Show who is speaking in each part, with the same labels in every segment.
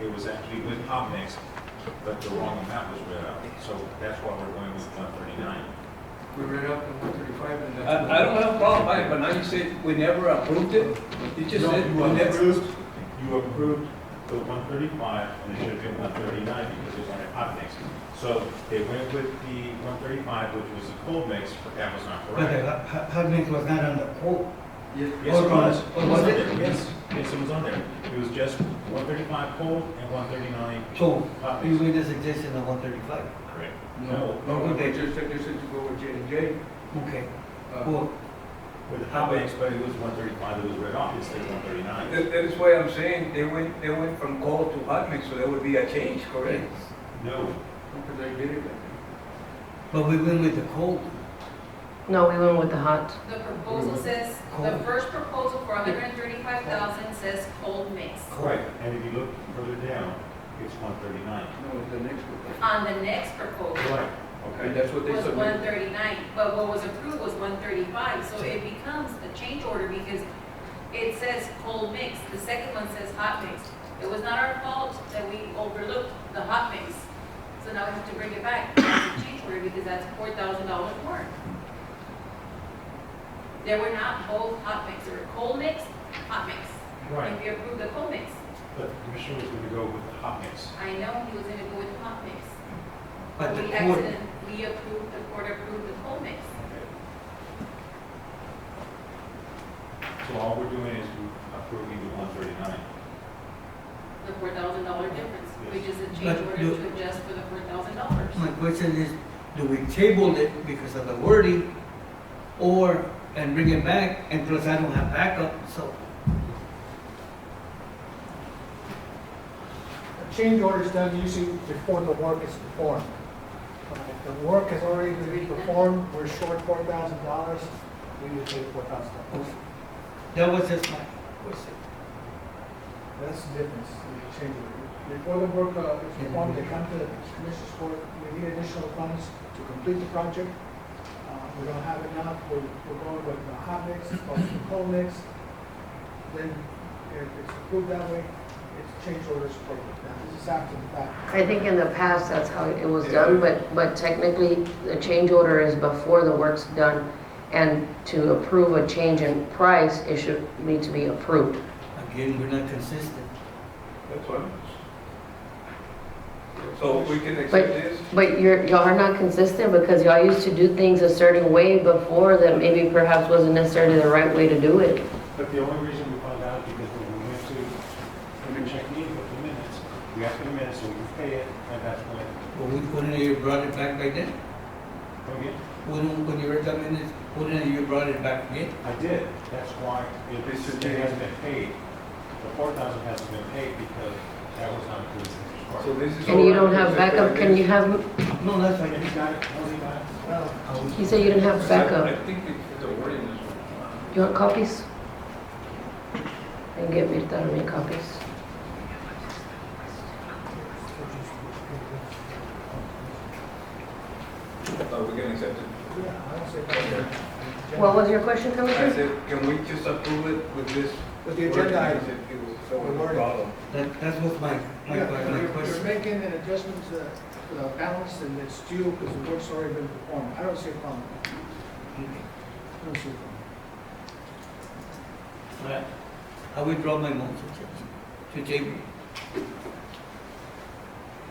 Speaker 1: It was actually with Popnex, but the wrong amount was read out. So that's why we're going with one thirty-nine.
Speaker 2: We read up in one thirty-five and that's.
Speaker 3: I, I don't have a problem, with it, but now you said we never approved it, you just
Speaker 1: No,
Speaker 3: said
Speaker 1: you
Speaker 3: we never.
Speaker 1: approved, you approved the one thirty-five, and it should have been one thirty-nine because it wanted hot mix. So they went with the one thirty-five, which was the cold mix, but that was not
Speaker 4: But the
Speaker 1: correct.
Speaker 4: hu- hu- Hudnick was not on the quote.
Speaker 2: Yes,
Speaker 1: Yes, it was,
Speaker 4: Oh,
Speaker 1: it was
Speaker 4: was
Speaker 1: on
Speaker 4: it?
Speaker 1: there, yes, yes, it was on there. It was just one thirty-five cold and one thirty-nine
Speaker 4: So
Speaker 1: hot
Speaker 4: we
Speaker 1: mix.
Speaker 4: made a suggestion of one thirty-five.
Speaker 1: Correct.
Speaker 2: no,
Speaker 1: No,
Speaker 2: no,
Speaker 4: Who
Speaker 2: we
Speaker 4: did?
Speaker 2: just suggested to go with J and J.
Speaker 4: Okay.
Speaker 2: Uh,
Speaker 4: Well,
Speaker 1: with hot mix, but it was one thirty-five that was read off, it said one thirty-nine.
Speaker 3: That, that is why I'm saying they went, they went from cold to hot mix, so there would be a change, correct?
Speaker 1: No,
Speaker 2: Because I did it. I
Speaker 4: but we went with the quote.
Speaker 5: No, we went with the hot.
Speaker 6: The proposal says, the
Speaker 4: Cold.
Speaker 6: first proposal for hundred and thirty-five thousand says cold mix.
Speaker 1: right, and if you look further down, it's one thirty-nine.
Speaker 2: think. No, it's the next one.
Speaker 6: On the next proposal
Speaker 1: Right,
Speaker 2: And
Speaker 1: okay.
Speaker 2: that's what they
Speaker 6: was one
Speaker 2: submitted.
Speaker 6: thirty-nine, but what was approved was one thirty-five, so it becomes a change order because it says cold mix, the second one says hot mix. It was not our fault that we overlooked the hot mix, so now we have to bring it back, as a change order, because that's four thousand dollars more. They were not both hot mix, they were cold mix, hot mix.
Speaker 1: Right.
Speaker 6: If you approve the cold mix,
Speaker 1: But the commissioner was gonna go with the hot mix.
Speaker 6: I know he was gonna go with the hot mix.
Speaker 4: But the
Speaker 6: We
Speaker 4: quote,
Speaker 6: accident, we approved, the court approved the cold mix.
Speaker 1: So all we're doing is approving the one thirty-nine.
Speaker 6: the four thousand dollar difference, which is a
Speaker 4: But
Speaker 6: change order
Speaker 4: you-
Speaker 6: to adjust for the four thousand dollars.
Speaker 4: my question is, do we table it because of the wording or, and bring it back? And plus I don't have backup, so.
Speaker 7: A change order is done usually before the work is performed. Uh, if The work has already been performed, we're short four thousand dollars, we need to pay four thousand dollars.
Speaker 4: That was just my question.
Speaker 7: That's the difference in the change order. Before the work uh, is performed, they come to the commission's court, we need additional funds to complete the project. Uh, We don't have enough, we're, we're going with the hot mix, or the cold mix. Then if it's approved that way, it's change orders for, now this is after the fact.
Speaker 5: I think in the past, that's how it was done, but, but technically, the change order is before the work's done. And to approve a change in price, it should need to be approved.
Speaker 4: Again, we're not consistent.
Speaker 3: That's what. So we can
Speaker 5: But,
Speaker 3: accept this?
Speaker 5: but you're, y'all are not consistent because y'all used to do things a certain way before that maybe perhaps wasn't necessarily the right way to do it.
Speaker 1: But the only reason we found out is because when we went to, when we checked in with the minutes, we asked for the minutes, so we could pay it, and that's when,
Speaker 4: But we couldn't have brought it back by then.
Speaker 1: okay,
Speaker 4: Wouldn't, when you read the minutes, wouldn't you brought it back again?
Speaker 1: I did. That's why it it hasn't been paid. The four thousand hasn't been paid because that was not approved.
Speaker 3: So this is.
Speaker 5: And you
Speaker 3: all
Speaker 5: don't
Speaker 3: right,
Speaker 5: have
Speaker 3: except for
Speaker 5: backup, can
Speaker 3: this.
Speaker 5: you have,
Speaker 4: No, that's
Speaker 1: If
Speaker 4: right.
Speaker 1: you got it, only got it.
Speaker 4: Well, I was-
Speaker 5: you say you didn't have
Speaker 3: I
Speaker 5: backup.
Speaker 3: think it- the wording is wrong.
Speaker 5: You want copies? And get Mirta to make copies.
Speaker 3: Uh, we can accept it.
Speaker 7: Yeah, I don't say that.
Speaker 5: What was your question,
Speaker 3: I
Speaker 5: Commissioner?
Speaker 3: said, can we just approve it with this?
Speaker 7: With the agenda
Speaker 3: wording?
Speaker 7: item.
Speaker 3: If it was so
Speaker 7: The wording.
Speaker 3: problem.
Speaker 4: That, that was my, my,
Speaker 7: Yeah,
Speaker 4: my
Speaker 7: you're- You're
Speaker 4: question.
Speaker 7: making an adjustment to the- to the balance and it's due because the work's already been performed. I don't see a problem. I don't see a problem.
Speaker 4: I withdraw my motion, Judge, to table.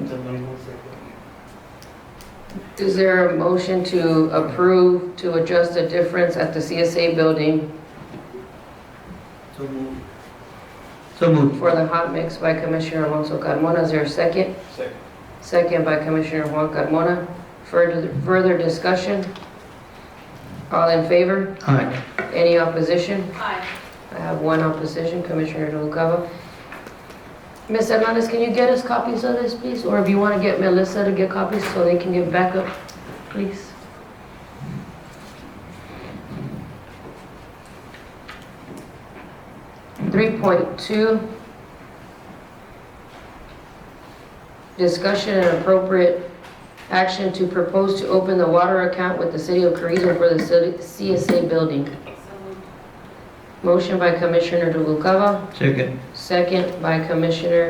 Speaker 4: Somebody will say,
Speaker 5: Is there a motion to approve to adjust the difference at the CSA building
Speaker 4: so move. So move.
Speaker 5: for the hot mix by Commissioner Alonso Carmona? Is there a second?
Speaker 3: Second.
Speaker 5: Second by Commissioner Juan Carmona. Further, further discussion? All in favor?
Speaker 4: Aye.
Speaker 5: Any opposition?
Speaker 6: Aye.
Speaker 5: I have one opposition, Commissioner Noguera. Ms. Hernandez, can you get us copies of this, please? Or if you want to get Melissa to get copies so they can give backup, please? Three point two. Discussion and appropriate action to propose to open the water account with the city of Carrizo for the city- CSA building.
Speaker 6: So moved.
Speaker 5: Motion by Commissioner Noguera,
Speaker 4: Second.
Speaker 5: second by Commissioner